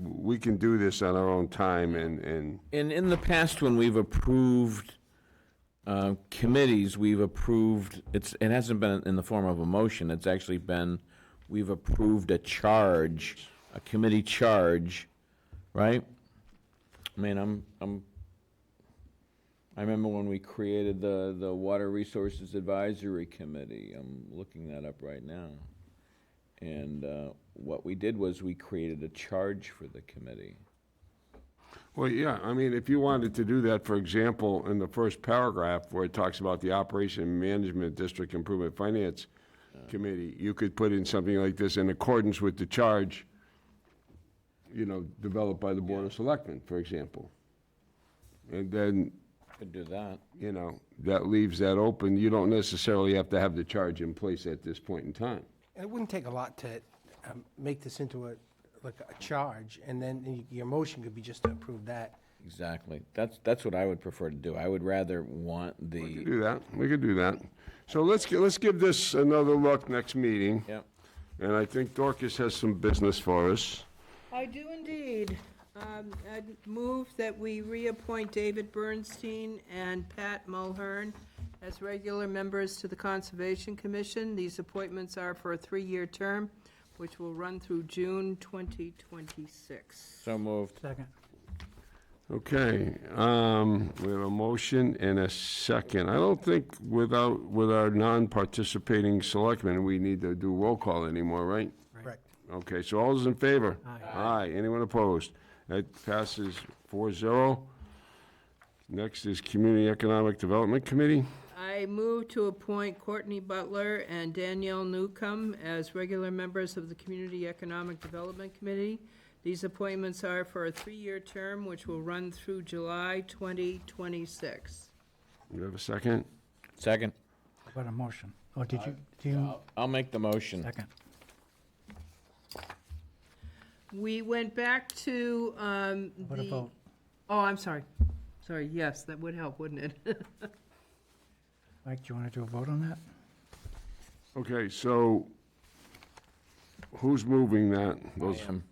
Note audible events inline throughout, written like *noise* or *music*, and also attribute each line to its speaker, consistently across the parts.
Speaker 1: we can do this on our own time and, and,
Speaker 2: And in the past, when we've approved uh, committees, we've approved, it's, it hasn't been in the form of a motion, it's actually been, we've approved a charge, a committee charge, right? I mean, I'm, I'm, I remember when we created the, the Water Resources Advisory Committee, I'm looking that up right now. And uh, what we did was we created a charge for the committee.
Speaker 1: well, yeah, I mean, if you wanted to do that, for example, in the first paragraph where it talks about the Operation and Management District Improvement Finance Committee, you could put in something like this in accordance with the charge, you know, developed by the Board of Selectmen, for example. And then,
Speaker 2: Could do that.
Speaker 1: you know, that leaves that open. You don't necessarily have to have the charge in place at this point in time.
Speaker 3: It wouldn't take a lot to um, make this into a, like a charge, and then y- your motion could be just to approve that.
Speaker 2: Exactly. That's, that's what I would prefer to do. I would rather want the,
Speaker 1: Do that, we could do that. So let's, gi- let's give this another look next meeting.
Speaker 2: Yep.
Speaker 1: And I think Dorcas has some business for us.
Speaker 4: I do indeed. Um, I'd move that we reappoint David Bernstein and Pat Mulhern as regular members to the Conservation Commission. These appointments are for a three-year term, which will run through June 2026.
Speaker 2: so moved.
Speaker 3: Second.
Speaker 1: Okay, um, we have a motion and a second. I don't think without, with our non-participating selectmen, we need to do roll call anymore, right?
Speaker 3: Correct.
Speaker 1: Okay, so all those in favor? Aye. anyone opposed? That passes four zero. Next is Community Economic Development Committee.
Speaker 4: I move to appoint Courtney Butler and Danielle Newcomb as regular members of the Community Economic Development Committee. These appointments are for a three-year term, which will run through July 2026.
Speaker 1: Do you have a second?
Speaker 2: Second.
Speaker 5: What a motion. Oh, did you, do you,
Speaker 2: I'll make the motion.
Speaker 5: second?
Speaker 4: We went back to um, the...
Speaker 5: What about,
Speaker 4: Oh, I'm sorry. Sorry, yes, that would help, wouldn't it? *laughs*
Speaker 5: Mike, do you want to do a vote on that?
Speaker 1: Okay, so who's moving that? Those,
Speaker 2: Um,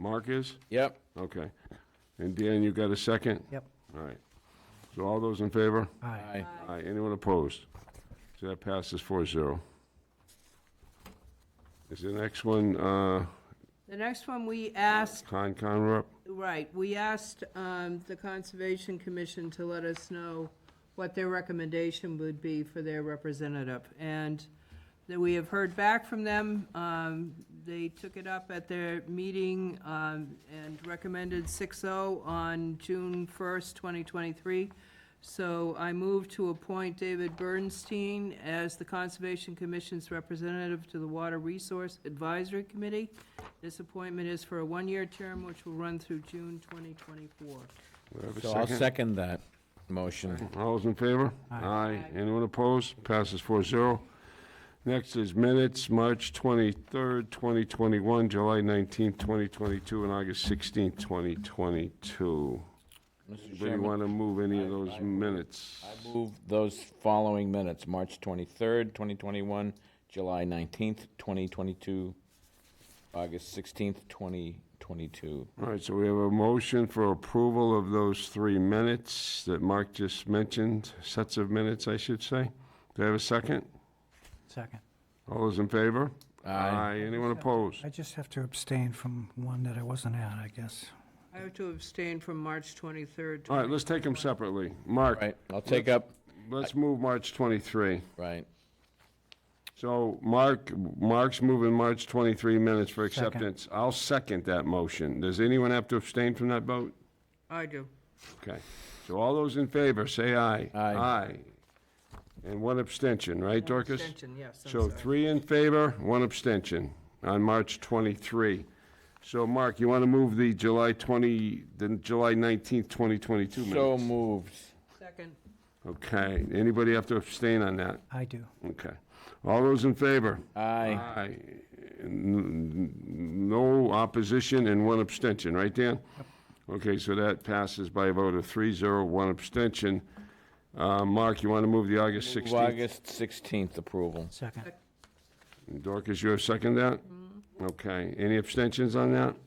Speaker 1: Mark is?
Speaker 2: Yep.
Speaker 1: Okay. And Dan, you got a second?
Speaker 5: Yep.
Speaker 1: All right. So all those in favor?
Speaker 5: Aye.
Speaker 2: Aye.
Speaker 1: Aye. Anyone opposed? So that passes four zero. Is the next one, uh,
Speaker 4: The next one, we asked,
Speaker 1: Concom rep?
Speaker 4: right, we asked um, the Conservation Commission to let us know what their recommendation would be for their representative. And that we have heard back from them. Um, They took it up at their meeting um, and recommended 6-0 on June 1st, 2023. So I move to appoint David Bernstein as the Conservation Commission's representative to the Water Resource Advisory Committee. This appointment is for a one-year term, which will run through June 2024.
Speaker 1: Do I have a
Speaker 2: So I'll second that motion.
Speaker 1: All those in favor? Aye. Anyone opposed? Passes four zero. Next is minutes, March 23rd, 2021, July 19th, 2022, and August 16th, 2022.
Speaker 2: Mr.
Speaker 1: Anybody
Speaker 2: Chairman,
Speaker 1: want to move any of those minutes?
Speaker 2: I move those following minutes, March 23rd, 2021, July 19th, 2022, August 16th, 2022.
Speaker 1: All right, so we have a motion for approval of those three minutes that Mark just mentioned, sets of minutes, I should say. Do I have a second?
Speaker 5: Second.
Speaker 1: All those in favor?
Speaker 2: Aye.
Speaker 1: Anyone opposed?
Speaker 5: I just have to abstain from one that I wasn't at, I guess.
Speaker 4: I have to abstain from March 23rd.
Speaker 1: All right, let's take them separately. Mark,
Speaker 2: Right, I'll take up,
Speaker 1: let's move March 23.
Speaker 2: right,
Speaker 1: So Mark, Mark's moving March 23 minutes for
Speaker 5: Second.
Speaker 1: acceptance. I'll second that motion. Does anyone have to abstain from that vote?
Speaker 4: I do.
Speaker 1: Okay. So all those in favor, say aye.
Speaker 2: Aye.
Speaker 1: Aye. And one abstention, right, Dorcas?
Speaker 4: Abstention, yes, I'm
Speaker 1: So
Speaker 4: sorry.
Speaker 1: three in favor, one abstention on March 23. So Mark, you want to move the July 20, the July 19th, 2022
Speaker 2: so
Speaker 1: minutes?
Speaker 2: moved.
Speaker 4: Second.
Speaker 1: Okay. Anybody have to abstain on that?
Speaker 5: I do.
Speaker 1: Okay. All those in favor?
Speaker 2: Aye.
Speaker 1: Aye. N- n- No opposition and one abstention, right, Dan? Okay, so that passes by a vote of three, zero, one abstention. Uh, Mark, you want to move the August
Speaker 2: Move
Speaker 1: 16th?
Speaker 2: August 16th approval.
Speaker 5: Second.
Speaker 1: Dorcas, you have second that? Okay. Any abstentions on that?